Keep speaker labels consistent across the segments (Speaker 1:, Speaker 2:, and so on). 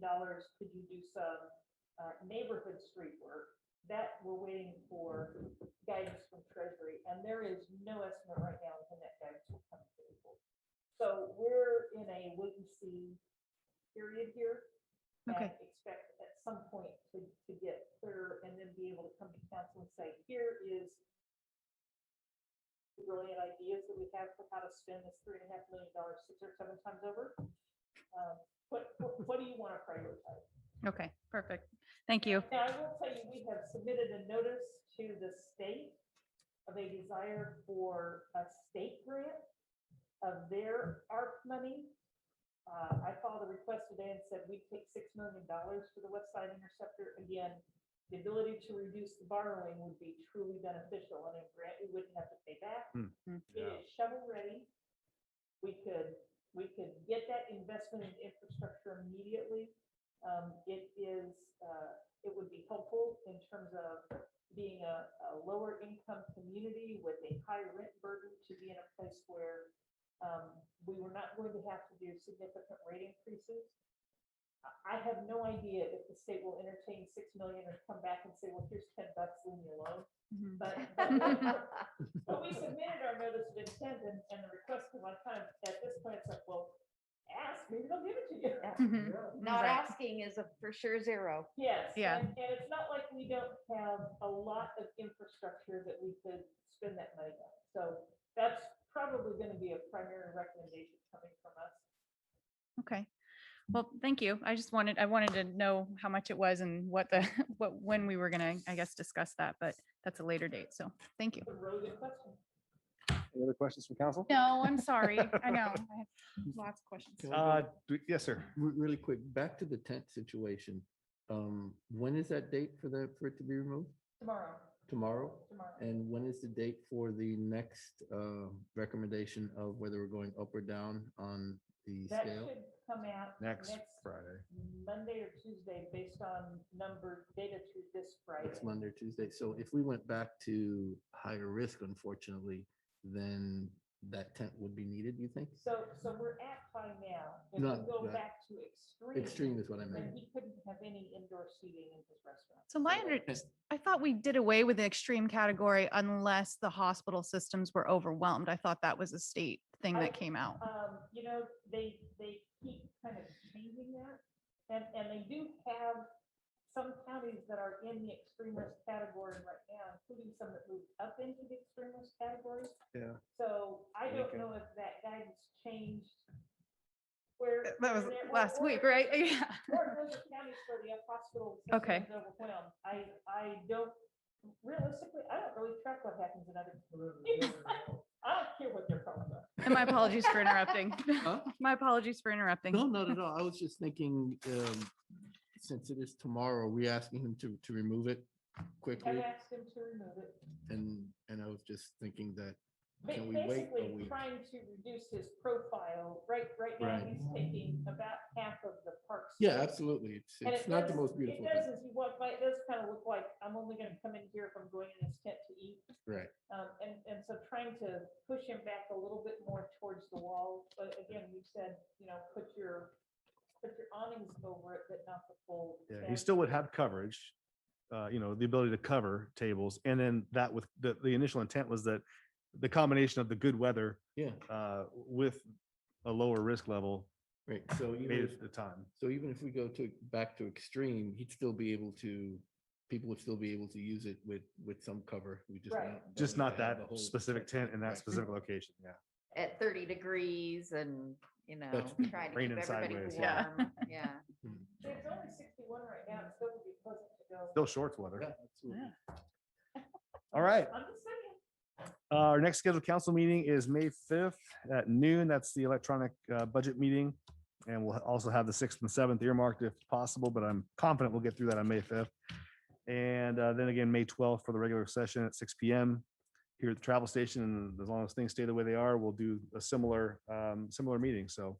Speaker 1: dollars, could you do some uh, neighborhood street work? That we're waiting for guidance from Treasury, and there is no estimate right now when that guidance will come available. So we're in a wait and see period here. and
Speaker 2: Okay.
Speaker 1: Expect at some point to, to get clearer and then be able to come to council and say, here is the brilliant ideas that we have for how to spend this three and a half million dollars six or seven times over. Um, What, what what do you want to prioritize?
Speaker 2: Okay, perfect. Thank you.
Speaker 1: Now, I will tell you, we have submitted a notice to the state of a desire for a state grant of their ARP money. Uh, I filed a request today and said we take six million dollars for the West Side Interceptor. Again, the ability to reduce the borrowing would be truly beneficial and a grant we wouldn't have to pay back.
Speaker 3: Hmm.
Speaker 2: Hmm.
Speaker 1: It is shovel ready. We could, we could get that investment in infrastructure immediately. Um, it is, uh, it would be helpful in terms of being a, a lower income community with a high rent burden to be in a place where um, we were not going to have to do significant rate increases. I- I have no idea if the state will entertain six million and come back and say, well, here's ten bucks, leave me alone.
Speaker 2: Mhm.
Speaker 1: But, but- but we submitted our notice of intent and, and the request to one time, at this point, it's like, well, ask, maybe they'll give it to you.
Speaker 2: Mhm.
Speaker 4: Not
Speaker 2: Right.
Speaker 4: asking is a for sure zero.
Speaker 1: Yes.
Speaker 2: Yeah.
Speaker 1: And and it's not like we don't have a lot of infrastructure that we could spend that money on. So that's probably going to be a primary recommendation coming from us.
Speaker 2: Okay. Well, thank you. I just wanted, I wanted to know how much it was and what the, what, when we were gonna, I guess, discuss that, but that's a later date. So thank you.
Speaker 1: It's a really good question.
Speaker 3: Any other questions from council?
Speaker 2: No, I'm sorry. I know. I have lots of questions.
Speaker 5: Can we go
Speaker 3: Uh, do- yes, sir.
Speaker 5: re- Really quick, back to the tent situation. Um, When is that date for the, for it to be removed?
Speaker 1: Tomorrow,
Speaker 5: Tomorrow?
Speaker 1: tomorrow.
Speaker 5: And when is the date for the next uh, recommendation of whether we're going up or down on the
Speaker 1: That
Speaker 5: scale?
Speaker 1: should come out
Speaker 3: Next
Speaker 1: next
Speaker 3: Friday.
Speaker 1: Monday or Tuesday based on number data through this Friday.
Speaker 5: Next Monday, or Tuesday. So if we went back to higher risk, unfortunately, then that tent would be needed, you think?
Speaker 1: So, so we're at high now. If
Speaker 5: No,
Speaker 1: we go
Speaker 5: right.
Speaker 1: back to extreme.
Speaker 5: Extreme is what I
Speaker 1: Then
Speaker 5: meant.
Speaker 1: he couldn't have any indoor seating in his restaurant.
Speaker 2: So my, under- I thought we did away with the extreme category unless the hospital systems were overwhelmed. I thought that was a state thing
Speaker 1: I-
Speaker 2: that came out.
Speaker 1: Um, you know, they, they keep kind of changing that. And, and they do have some counties that are in the extreme risk category right now, including some that moved up into the extreme risk category.
Speaker 3: Yeah.
Speaker 1: So I don't
Speaker 3: Lincoln.
Speaker 1: know if that guidance changed where.
Speaker 2: Uh, That was
Speaker 1: where they're- or-
Speaker 2: last
Speaker 1: or-
Speaker 2: week, right? Yeah.
Speaker 1: Or those are counties where the hospital
Speaker 2: Okay.
Speaker 1: system is overwhelmed. I, I don't, realistically, I don't really track what happens in other communities. I don't care what their problems are.
Speaker 2: And my apologies for interrupting.
Speaker 5: Huh?
Speaker 2: My apologies for interrupting.
Speaker 5: No, not at all. I was just thinking, um, since it is tomorrow, are we asking him to, to remove it
Speaker 1: I've
Speaker 5: quickly?
Speaker 1: asked them to remove it.
Speaker 5: And, and I was just thinking that
Speaker 1: Ba-
Speaker 5: Can we wait a
Speaker 1: Basically
Speaker 5: week?
Speaker 1: trying to reduce his profile. Right, right now,
Speaker 5: Right.
Speaker 1: he's taking about half of the park.
Speaker 5: Yeah,
Speaker 1: space.
Speaker 5: absolutely. It's,
Speaker 1: And it
Speaker 5: it's not the
Speaker 1: does-
Speaker 5: most beautiful.
Speaker 1: It does, as
Speaker 5: thing.
Speaker 1: you walk by, it does kind of look like, I'm only gonna come in here if I'm going in this tent to eat.
Speaker 5: Right.
Speaker 1: Um, and, and so trying to push him back a little bit more towards the wall, but again, we said, you know, put your, put your awnings over it, but not the full.
Speaker 3: Yeah, he
Speaker 1: tent.
Speaker 3: still would have coverage, uh, you know, the ability to cover tables. And then that with, the, the initial intent was that the combination of the good weather
Speaker 5: Yeah,
Speaker 3: uh, with a lower risk level
Speaker 5: right. So even,
Speaker 3: made
Speaker 5: if-
Speaker 3: it the time.
Speaker 5: so even if we go to, back to extreme, he'd still be able to, people would still be able to use it with, with some cover. We just.
Speaker 1: Right.
Speaker 5: not- don't
Speaker 3: Just
Speaker 5: have
Speaker 3: not
Speaker 5: to have
Speaker 3: that
Speaker 5: the whole-
Speaker 3: specific tent in
Speaker 5: Right.
Speaker 3: that specific location. Yeah.
Speaker 4: At thirty degrees and, you know,
Speaker 5: That's-
Speaker 4: trying to keep
Speaker 3: Raining
Speaker 4: everybody
Speaker 3: sideways,
Speaker 2: yeah.
Speaker 4: warm. Yeah.
Speaker 5: Hmm.
Speaker 1: It's only sixty-one right now, it's still would be pleasant to go.
Speaker 3: Still shorts weather.
Speaker 5: Yeah, absolutely.
Speaker 3: All right.
Speaker 1: I'm just saying.
Speaker 3: Uh, Our next scheduled council meeting is May fifth at noon. That's the electronic uh, budget meeting. And we'll also have the sixth and seventh earmarked if possible, but I'm confident we'll get through that on May fifth. And uh, then again, May twelfth for the regular session at six P M. Here at the travel station, and as long as things stay the way they are, we'll do a similar, um, similar meeting, so.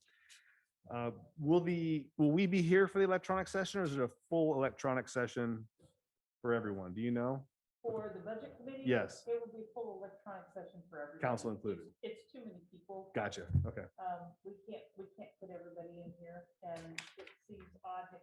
Speaker 3: uh, Will the, will we be here for the electronic session or is it a full electronic session for everyone? Do you know?
Speaker 1: For the budget committee?
Speaker 3: Yes.
Speaker 1: It will be full electronic session for everybody.
Speaker 3: Council included.
Speaker 1: It's it's too many people.
Speaker 3: Gotcha. Okay.
Speaker 1: Um, we can't, we can't put everybody in here and it seems odd if